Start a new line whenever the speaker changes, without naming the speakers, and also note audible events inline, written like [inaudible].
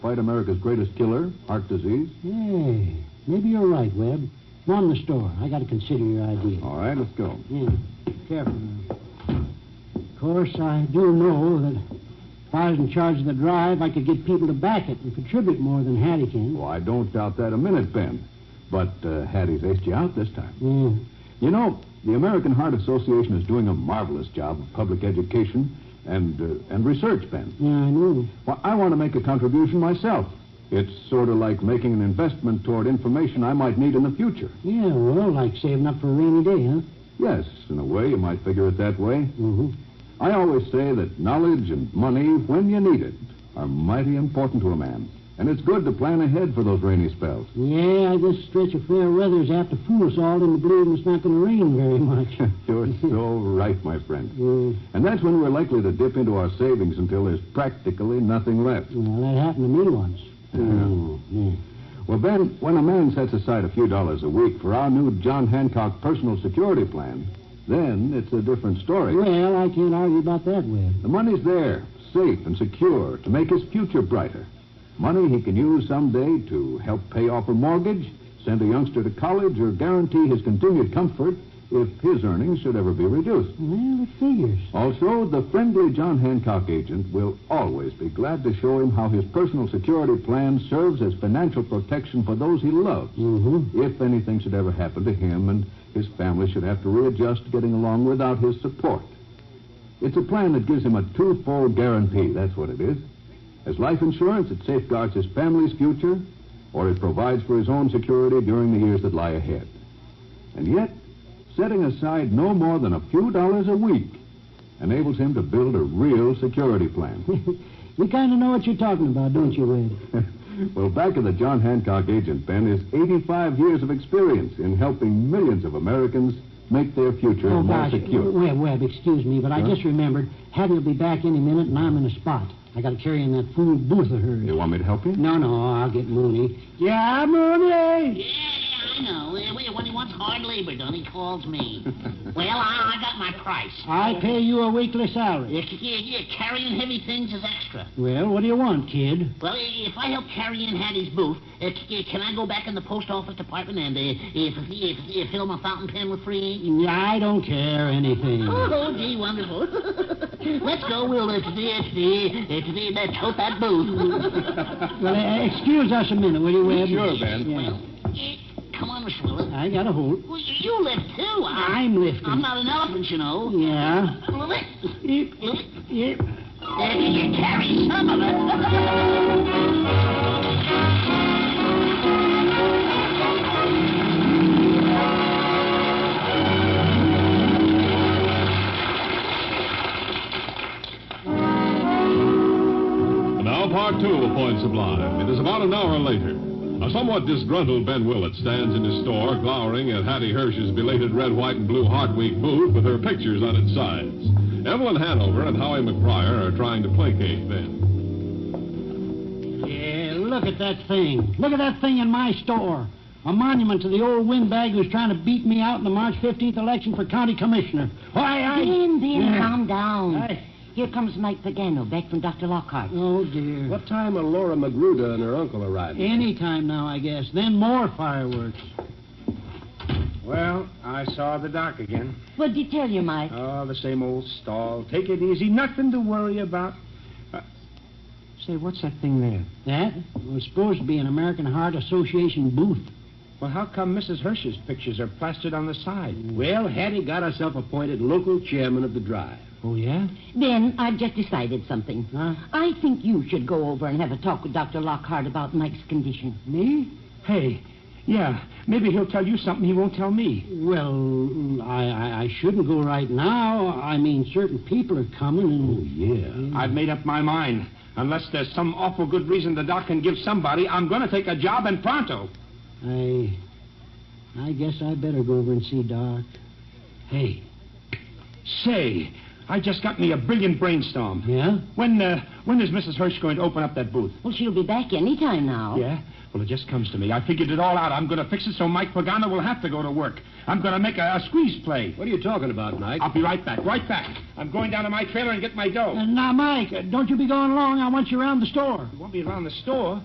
Quite America's greatest killer, heart disease.
Hey, maybe you're right, Webb. Go on the store. I got to consider your idea.
All right, let's go.
Yeah, careful now. Of course, I do know that if I was in charge of the drive, I could get people to back it and contribute more than Hattie can.
Well, I don't doubt that a minute, Ben. But uh, Hattie's aced you out this time.
Yeah.
You know, the American Heart Association is doing a marvelous job of public education and uh, and research, Ben.
Yeah, I know.
Well, I want to make a contribution myself. It's sort of like making an investment toward information I might need in the future.
Yeah, well, like saving up for a rainy day, huh?
Yes, in a way, you might figure it that way.
Mm-hmm.
I always say that knowledge and money, when you need it, are mighty important to a man. And it's good to plan ahead for those rainy spells.
Yeah, this stretch of fair weather is apt to fool us all into believing it's not going to rain very much. [laughs]
[laughs]
Mm,
You're so right, my friend.
Yeah.
And that's when we're likely to dip into our savings until there's practically nothing left.
Well, that happened to me once.
Yeah.
Yeah.
Well, Ben, when a man sets aside a few dollars a week for our new John Hancock personal security plan, then it's a different story.
Well, I can't argue about that, Webb.
The money's there, safe and secure, to make his future brighter. Money he can use someday to help pay off a mortgage, send a youngster to college, or guarantee his continued comfort if his earnings should ever be reduced.
Well, it figures.
Also, the friendly John Hancock agent will always be glad to show him how his personal security plan serves as financial protection for those he loves.
Mm-hmm.
If anything should ever happen to him and his family should have to readjust to getting along without his support. It's a plan that gives him a twofold guarantee, that's what it is. As life insurance, it safeguards his family's future, or it provides for his own security during the years that lie ahead. And yet, setting aside no more than a few dollars a week enables him to build a real security plan.
you kind of know what you're talking about, don't you, Webb?
well, back of the John Hancock agent, Ben, is 85 years of experience in helping millions of Americans make their future
oh,
more
gosh.
secure.
Webb, Webb, excuse me, but I
Huh?
just remembered Hattie will be back any minute, and I'm in a spot. I got to carry in that fool booth of hers.
You want me to help you?
No, no, I'll get Mooney. Yeah, Mooney!
Yeah, yeah, I know. Uh, well, When he wants hard labor done, he
[laughs]
calls me. well, I, I got my price.
I pay you a weekly salary.
Yeah, c- yeah, yeah, carrying heavy things is extra.
Well, what do you want, kid?
Well, i- if I help carry in Hattie's booth, uh, c- yeah, can I go back in the post office department and uh, if, if, if fill my fountain pen with free ink?
I don't care anything.
Oh, gee, wonderful. [laughs] Let's go, We'll uh, It's the, it's the, it's the, uh, let's hope that booth.
Well, uh, excuse us a minute, will you, Webb?
Sure, Ben.
[laughs] Yeah.
Eh, Come on, Miss Willa.
I got a hold.
Well, you- you lift, too. I-
I'm lifting.
I'm not an elephant, you know.
Yeah.
Lift.
Yep,
Lift.
yep.
There you carry some of
[laughs]
it.
And now part two of Point Sublime. It is about an hour later. A somewhat disgruntled Ben Willett stands in his store glowering at Hattie Hirsch's belated red, white, and blue Heart Week booth with her pictures on its sides. Evelyn Hanover and Howie McBriar are trying to placate Ben.
Yeah, look at that thing. Look at that thing in my store. A monument to the old windbag who's trying to beat me out in the March 15th election for county commissioner. Why, I...
Ben, Ben,
Yeah.
calm down.
I-
Here comes Mike Pagano back from Dr. Lockhart.
Oh, dear.
What time are Laura Magruder and her uncle arriving?
Any time now, I guess. Then more fireworks.
Well, I saw the doc again.
What'd he tell you, Mike?
Oh, the same old stall. Take it easy. Nothing to worry about. Uh, Say, what's that thing there?
That was supposed to be an American Heart Association booth.
Well, how come Mrs. Hirsch's pictures are plastered on the side? Well, Hattie got herself appointed local chairman of the drive.
Oh, yeah?
Ben, I've just decided something.
Huh?
I think you should go over and have a talk with Dr. Lockhart about Mike's condition.
Me?
Hey, yeah, maybe he'll tell you something he won't tell me.
Well, I, I, I shouldn't go right now. I mean, certain people are coming and...
Oh, Yeah. I've made up my mind. Unless there's some awful good reason the doc can give somebody, I'm going to take a job in pronto.
I. I guess I better go over and see Doc. Hey,
Say, I just got me a brilliant brainstorm.
Yeah?
When, uh, when is Mrs. Hirsch going to open up that booth?
Well, she'll be back any time now.
Yeah? Well, it just comes to me. I figured it all out. I'm going to fix it so Mike Pagano will have to go to work. I'm going to make a, a squeeze play.
What are you talking about, Mike?
I'll be right back, right back. I'm going down to my trailer and get my dough.
Uh, now, Mike, uh, don't you be going along. I want you around the store.
You won't be around the store.